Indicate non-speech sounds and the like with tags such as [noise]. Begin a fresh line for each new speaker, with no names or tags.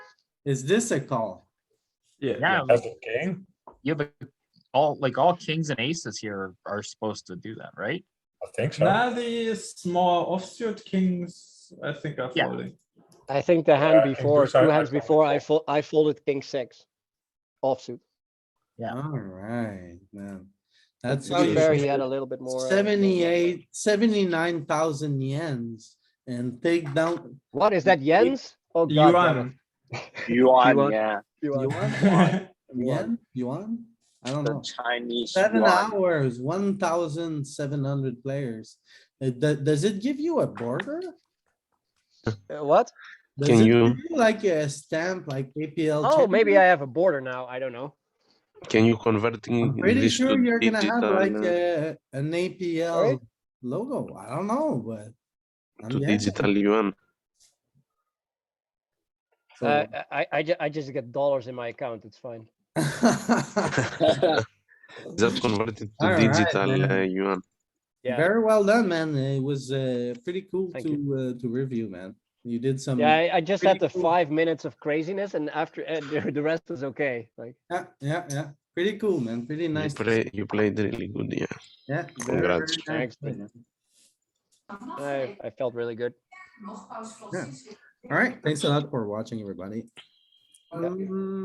Is this a call?
Yeah.
Yeah,
As
like,
a king,
yeah, but all, like, all kings and aces here are supposed to do that, right?
I think so.
Now these small offsuit kings, I think are
Yeah.
folding.
I think the
Yeah,
hand
I think
before,
those are-
two
Uh, I
hands
fold-
before, I fold, I folded king six. Offsuit.
Yeah.
Alright, man. That's.
To be fair, he had
usually-
a little bit more. uh,
78, 79,000 yens and take down.
What is that, Jens? Oh, God.
Yuan.
Yuan.
Yuan, yeah,
Yuan.
Yuan?
[laughs]
Yen? Yuan? I don't
the
know.
Chinese
Seven
yuan.
hours, 1,700 players. Uh, do- Does it give you a border?
Uh, What?
Does
Can
it
you-
give Like a stamp, like APL.
Oh, maybe I
champion?
have a border now. I don't know.
Can you convert in
I'm Pretty
this
sure
to
you're gonna have
digital,
like
uh,
a, an APL logo. I don't know, but. I'm
to
guessing.
digital yuan?
So-
Uh, I, I, ju- I just get dollars in my account. It's fine.
[laughs]
Just convert it to
Alright,
digital
then.
uh, yuan.
Yeah.
Very well done, man. It was uh, pretty cool
Thank
to, uh, to review, man. You did some,
Yeah, I, I just
pretty
had the
cool.
five minutes of craziness and [laughs] after, uh, the the rest is okay. Like,
yeah, yeah, yeah. Pretty cool, man. Pretty
You,
nice.
play, you played really good, yeah.
Yeah. very,
Congrats.
very nice,
Thanks, man.
man.
I, I felt really good.
All right. Thanks a lot for watching, everybody.
Yeah.
Um,